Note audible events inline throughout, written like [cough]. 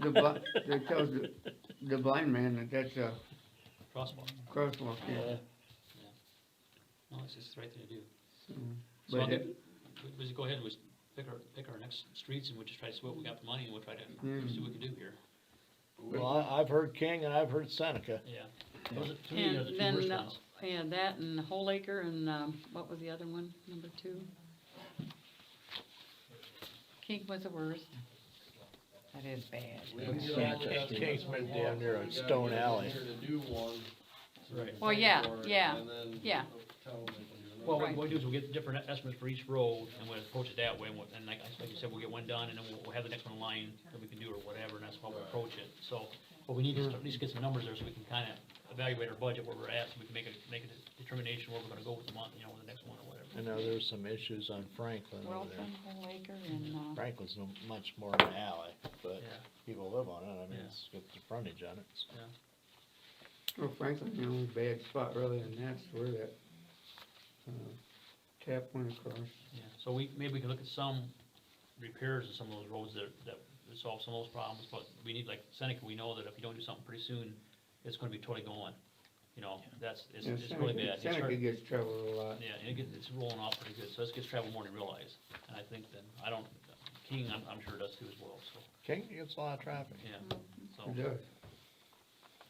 the bli- they tells the, the blind man that that's a crosswalk. crosswalk, Yeah. yeah. yeah. No, it's just the right thing to do. So I Hmm. But, think, it- we- we just go ahead and we s- pick our, pick our next streets and we'll just try to see what we got the money and we'll try to Mm. see what we can do here. Well, I, I've heard King and I've heard Seneca. Yeah. Those are, to me, And those are the then two worst the- ones. Yeah, that and Whole Acre and, um, what was the other one, number two? King was the worst. That is bad. King's been down there on Stone Alley. Right. Well, yeah, yeah, yeah. Well, what Right. we'll do is we'll get different estimates for each road and we'll approach it that way and we'll, and like, like you said, we'll get one done and then we'll, we'll have the next one lined that we can do or whatever and that's how we'll approach it. So, but we need Hmm. to start- at least get some numbers there so we can kinda evaluate our budget where we're at, so we can make a, make a de- determination where we're gonna go with the month, you know, with the next one or whatever. I know there's some issues on Franklin over there. Wilson, Whole Acre and, uh, Franklin's no- much more of an alley, but Yeah. people live on it, I mean, Yeah. it's got the frontage on it. so. well, Franklin, the only bad spot really, and that's where that, uh, tap went across. Yeah, so we, maybe we can look at some repairs in some of those roads that, that would solve some of those problems, but we need, like Seneca, we know that if you don't do something pretty soon, it's gonna be totally going. You know, that's, it's, Yeah, it's really Seneca- bad. It's Seneca hard- gets traveled a lot. Yeah, and it gets, it's rolling off pretty good, so this gets traveled more than you realize, and I think then, I don't, King, I'm, I'm sure does too as well, so, King gets a lot of traffic. yeah, so. It does.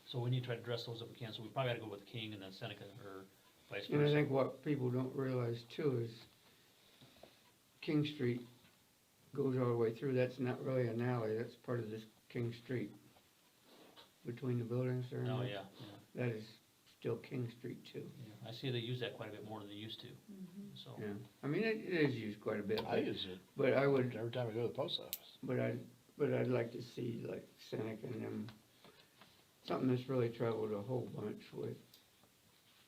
So we need to try to address those if we can, so we probably gotta go with King and then Seneca or vice And I versa. think what people don't realize too is King Street goes all the way through, that's not really an alley, that's part of this King Street. Between the buildings there. and Oh, that. yeah, yeah, That is still King Street too, yeah, I see they use that quite a bit more than they used to, mm-hmm. so. yeah. I mean, it, it is used quite a bit, I but- use it but I would, every time I go to the post office. but I, but I'd like to see like Seneca and them, something that's really traveled a whole bunch with.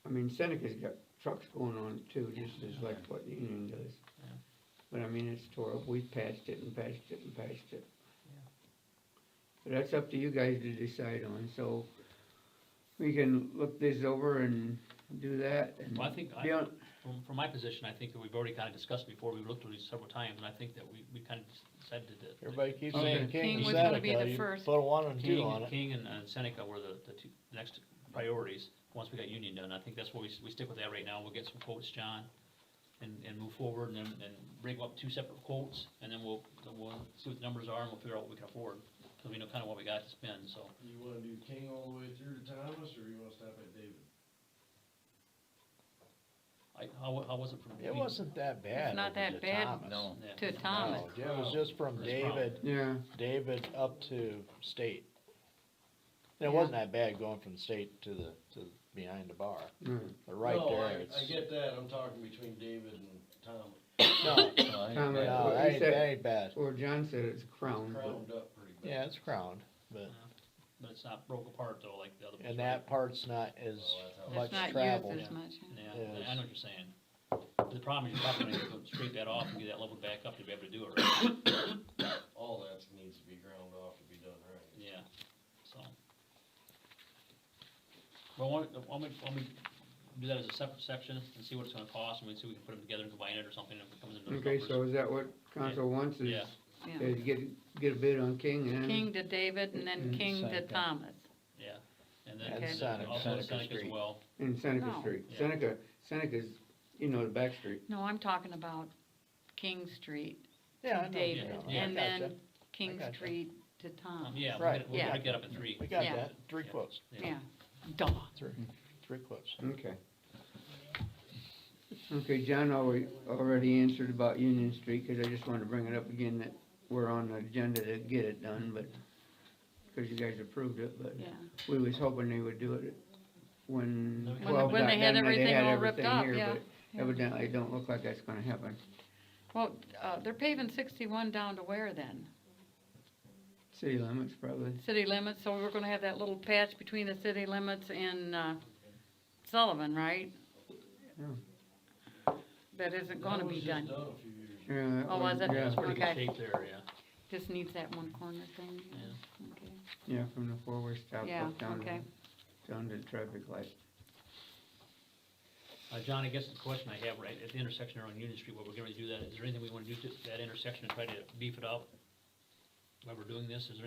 I mean, Seneca's got trucks going on it too, just as like what Union does. Yeah. But I mean, it's tore up, we've patched it and patched it and patched it. But that's up to you guys to decide on, so we can look this over and do that and. Well, I think I- be on- From, from my position, I think that we've already kind of discussed before, we've looked at these several times, and I think that we, we kind of decided that. that Everybody keeps Okay. saying King King and was gonna be Seneca, the you first. put a one and two King, on it. King and uh, Seneca were the, the two next priorities, once we got Union done, I think that's where we, s- we stick with that right now, we'll get some quotes, John, and, and move forward, and then, and bring up two separate quotes, and then we'll, then we'll see what the numbers are, and we'll figure out what we can afford, because we know kind of what we got to spend, so. You wanna do King all the way through to Thomas, or you wanna stop at David? I, how, wa- how was it from? It wasn't that bad. not over that to bad. Thomas. No. Yeah. to Thomas. No, It was just from That's wrong. David, Yeah, David up to state. And Yeah. It wasn't that bad going from state to the, to behind the bar, no, but right No, I- there, it's. I get that, I'm talking between David and [coughs] Thomas, No, Thomas. no, Well, that he ain't, said- that ain't bad. or John said it's crown, but. crowned up pretty bad. Yeah, it's crowned, but, But it's not broke apart though, like the other. ones, and right? that part's not as Oh, much It's not traveled. used as much. huh? Yeah, Yes. I- I know what you're saying. The problem is you're probably gonna go straight that off and get that level back up to be able to do it right, All that needs to be ground off to be done right. yeah, so. But why, don't- why don't we- why don't we do that as a separate section and see what it's gonna cost, and we see if we can put them together and combine it or something, if it comes into those Okay, so numbers. is that what council wants is, Yeah. Yeah. is get, get a bid on King and? King to David and then Mm, King to Seneca. Thomas. Yeah, and then, And and then Seneca. also Seneca Seneca as Street. well, In Seneca No. Street, Yeah. Seneca, Seneca's, you know, the back street, No, I'm talking about King Street Yeah, I to know, David yeah, I and gotcha. then King gotcha. Street to Thomas. um, yeah, we'll Right. get, it- we'll Oh. Yeah. break that up in three. We got Yeah. that, three Yeah. quotes, Yeah, duh. three, three quotes. okay. Okay, John already, already answered about Union Street, cause I just wanted to bring it up again that we're on the agenda to get it done, but, cause you guys approved it, but Yeah. we was hoping they would do it when When- twelve when got they done, had they everything had all ripped everything up, yeah, here, but yeah. evidently it don't look like that's gonna happen. Well, uh, they're paving sixty-one down to where then? City limits probably, City limits, so we're gonna have that little patch between the city limits and, uh, Sullivan, right? Yeah. That isn't gonna That be was just done, Done a few years ago. yeah. that Oh, was it? Yeah, That's pretty good Okay. shape there, yeah, just needs that one corner thing. Okay. yeah, from the four-way stop Yeah, up down, okay. to- down to the traffic light. Uh, John, I guess the question I have, right, at the intersection there on Union Street, what we're gonna do that, is there anything we wanna do to that intersection and try to beef it up? While we're doing this, is there